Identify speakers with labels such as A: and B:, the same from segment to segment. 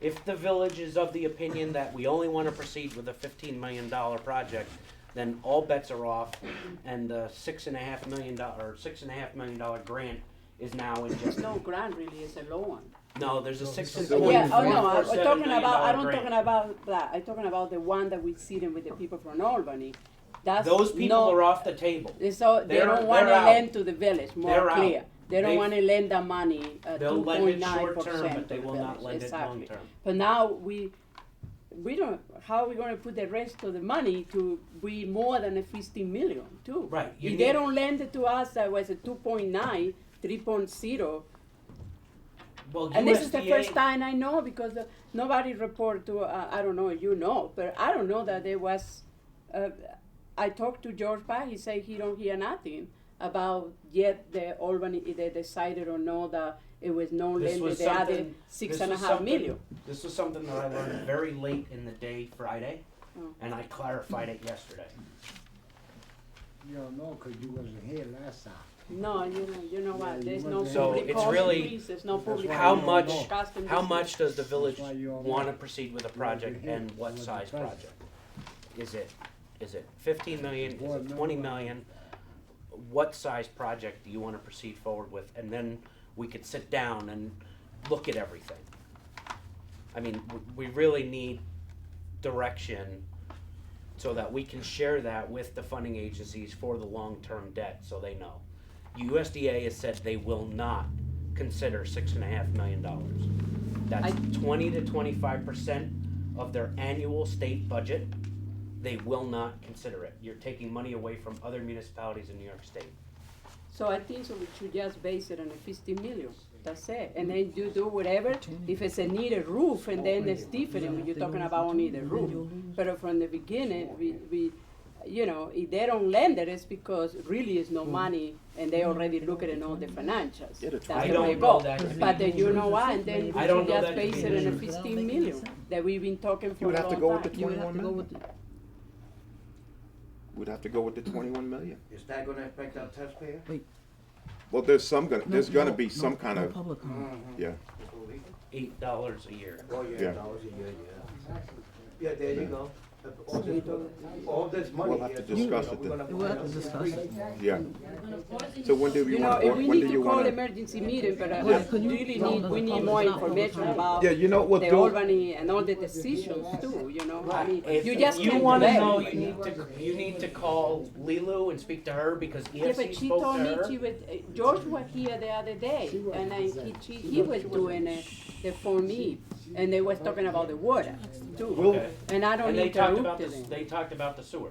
A: If the village is of the opinion that we only wanna proceed with a fifteen million dollar project, then all bets are off and the six and a half million dollar, or six and a half million dollar grant is now in jeopardy.
B: No grant really is a loan.
A: No, there's a six and
C: The one
B: Yeah, oh
C: grant.
B: no, I'm
A: $1.47
B: talking
A: million
B: about, I don't
A: grant.
B: talking about that, I'm talking about the one that we sitting with the people from Albany. That's
A: Those people
B: no-
A: are off the table.
B: So they
A: They're-
B: don't wanna
A: they're out.
B: lend to the village, more
A: They're out.
B: clear. They don't
A: They-
B: wanna lend the money, uh,
A: They'll
B: two
A: lend
B: point
A: it
B: nine
A: short term,
B: percent
A: but
B: to
A: they
B: the
A: will not
B: village,
A: lend it long
B: exactly.
A: term.
B: But now we, we don't, how are we gonna put the rest of the money to be more than a fifteen million too?
A: Right, you
B: If they
A: need-
B: don't lend it to us, that was a two point nine, three point zero,
A: Well,
B: and this is the first
A: USDA
B: time I know because uh, nobody report to, uh, I don't know, you know, but I don't know that there was, uh, I talked to George Pye, he said he don't hear nothing about yet the Albany, if they decided or no that it was no
A: This
B: lending,
A: was
B: they added
A: something-
B: six
A: this
B: and a
A: was
B: half
A: something-
B: million.
A: This was something that I learned very late in the day Friday,
B: Oh.
A: and I clarified it yesterday.
C: You don't know 'cause you wasn't here last time.
B: No, you know, you know what,
C: Yeah,
B: there's
C: you
B: no
C: want So
B: public
A: it's
B: cost
A: really-
B: increase, there's no
C: That's why
B: public.
C: you
A: How
B: cost
A: much-
B: increase, cost
A: How
B: increase.
A: much does the village
C: That's why you all
A: wanna
C: want-
A: proceed with a
C: you want to
A: project
C: hear
A: and what
C: what the
A: size
C: price is.
A: project? Is it, is it fifteen million, is
C: Boy,
A: it
C: no
A: twenty
C: way.
A: million? What size project do you wanna proceed forward with, and then we could sit down and look at everything. I mean, w- we really need direction so that we can share that with the funding agencies for the long-term debt, so they know. USDA has said they will not consider six and a half million dollars. That's twenty to twenty-five percent of their annual state budget. They will not consider it. You're taking money away from other municipalities in New York State.
B: So I think so we should just base it on a fifty million, that's it, and then you do whatever, if it's a needed roof, and then it's different, when you're talking about only the roof. But from the beginning, we, we, you know, if they don't lend it, it's because really is no money, and they already look at it on the financials. That's
A: I
B: the
A: don't
B: way it
A: know
B: goes.
A: that to be-
B: But then you know what, and then we
A: I don't
B: should
A: know
B: just
A: that to
B: base
A: be
B: it on a
A: true.
B: fifteen million, that we've been talking
D: You
B: for a
D: would
B: long
D: have
B: time.
D: to go with the
E: You would have
D: twenty-one
E: to go
D: million.
E: with the,
D: We'd have to go with the twenty-one million.
F: Is that gonna affect our taxpayer?
G: Well, there's some gonna,
E: No,
G: there's gonna
E: no,
G: be
E: no,
G: some kind
E: no
G: of,
E: public comment.
G: yeah.
A: Eight dollars a year.
F: Oh, yeah,
G: Yeah.
F: that was a year, yeah. Yeah, there you go. All this, all this money.
G: We'll have
F: here,
G: to
F: so, you know,
G: discuss it
F: we're
G: then.
F: gonna
E: We'll have
F: find
E: to
F: out.
E: discuss it.
G: Yeah. So when do
B: You
G: you
B: know,
G: want,
B: if we
G: when
B: need
G: do
B: to
G: you
B: call
G: wanna?
B: emergency meeting, but I
E: Yeah.
B: I really need, we need more information about
D: Yeah, you know what,
B: the
D: though?
B: Albany and all the decisions too, you know, I mean,
A: If
B: you just
A: you
B: can't
A: wanna
B: delay.
A: know, you need to, you need to call Lilu and speak to her because
B: Yeah,
A: EFC
B: but she
A: spoke to
B: told me
A: her.
B: she was, uh, George was here the other day,
C: She was
B: and I, he,
C: present.
B: she, he was doing uh, the Form E, and they was talking about the water too,
A: Okay.
B: and I don't
A: And they talked about
B: interrupt
A: this,
B: them.
A: they talked about the sewer.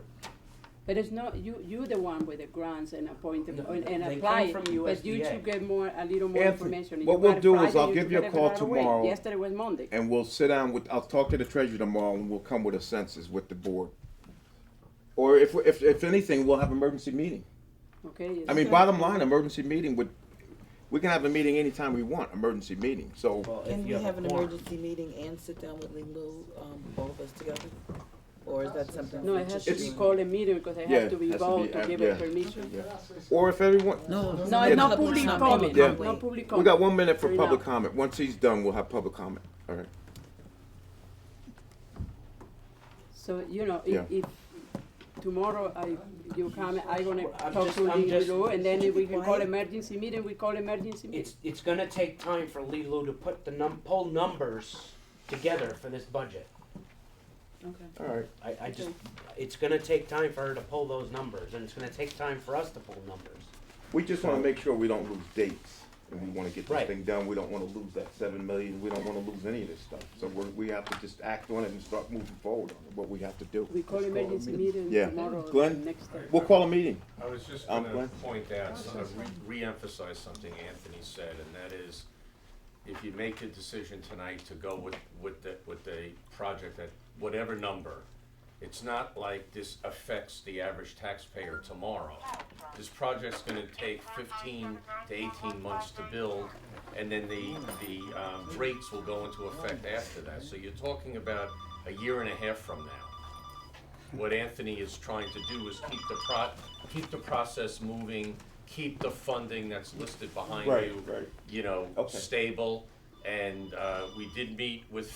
B: But it's not, you, you the one with the grants and appoint them,
A: No,
B: and and
A: they
B: apply
A: come
B: it,
A: from
B: but you
A: USDA.
B: should get more, a little more
G: Anthony,
B: information. and
G: what
B: you
G: we'll
B: got
G: do is
B: Friday,
G: I'll
B: you
G: give
B: should
G: you a
B: have it
G: call
B: right away.
G: tomorrow.
B: Yesterday was Monday.
G: And we'll sit down with, I'll talk to the treasurer tomorrow and we'll come with a census with the board. Or if, if, if anything, we'll have emergency meeting.
B: Okay.
G: I mean, bottom line, emergency meeting would, we can have a meeting anytime we want, emergency meeting, so.
A: Well, if
E: Can we
A: you
E: have
A: a
E: an
A: quorum.
E: emergency meeting and sit down with Lulu, um, both of us together? Or is that something?
B: No,
E: we
B: it has
E: just
B: to
G: It's-
B: be
E: do?
B: called a meeting because I
G: Yeah,
B: have to be
G: has to be,
B: involved
G: uh,
B: to give
G: yeah.
B: it permission.
G: Or if everyone,
E: No.
B: No,
G: Yeah.
B: it's not
E: public,
B: public comment,
E: not public
G: Yeah.
B: no
E: comment.
B: public
G: we got
B: comment.
G: one minute for
B: Three
G: public
B: now.
G: comment. Once he's done, we'll have public comment, all right?
B: So, you know,
G: Yeah.
B: if, if tomorrow I, you come, I gonna
A: I'm
B: talk
A: just-
B: to
A: I'm just-
B: Lulu and then if we can call
E: Why?
B: emergency meeting, we call emergency meeting.
A: It's, it's gonna take time for Lilo to put the num, pull numbers together for this budget.
B: Okay.
G: All right.
A: I, I just, it's gonna take time for her to pull those numbers, and it's gonna take time for us to pull numbers.
G: We just wanna make sure we don't lose dates, and we wanna get
A: Right.
G: this thing done, we don't wanna lose that seven million, we don't wanna lose any of this stuff. So we're, we have to just act on it and start moving forward on it, what we have to do.
B: We call emergency meeting
G: Yeah.
B: tomorrow, or
G: Glenn?
B: next day.
G: We'll call a meeting.
H: I was just
G: Um,
H: gonna
G: Glenn?
H: point out, uh, re- re-emphasize something Anthony said, and that is, if you make the decision tonight to go with, with the, with the project at whatever number, it's not like this affects the average taxpayer tomorrow. This project's gonna take fifteen to eighteen months to build, and then the, the, um, rates will go into effect after that. So you're talking about a year and a half from now what Anthony is trying to do is keep the pro, keep the process moving, keep the funding that's listed behind
G: Right,
H: you,
G: right.
H: you know,
G: Okay.
H: stable. And, uh, we did meet with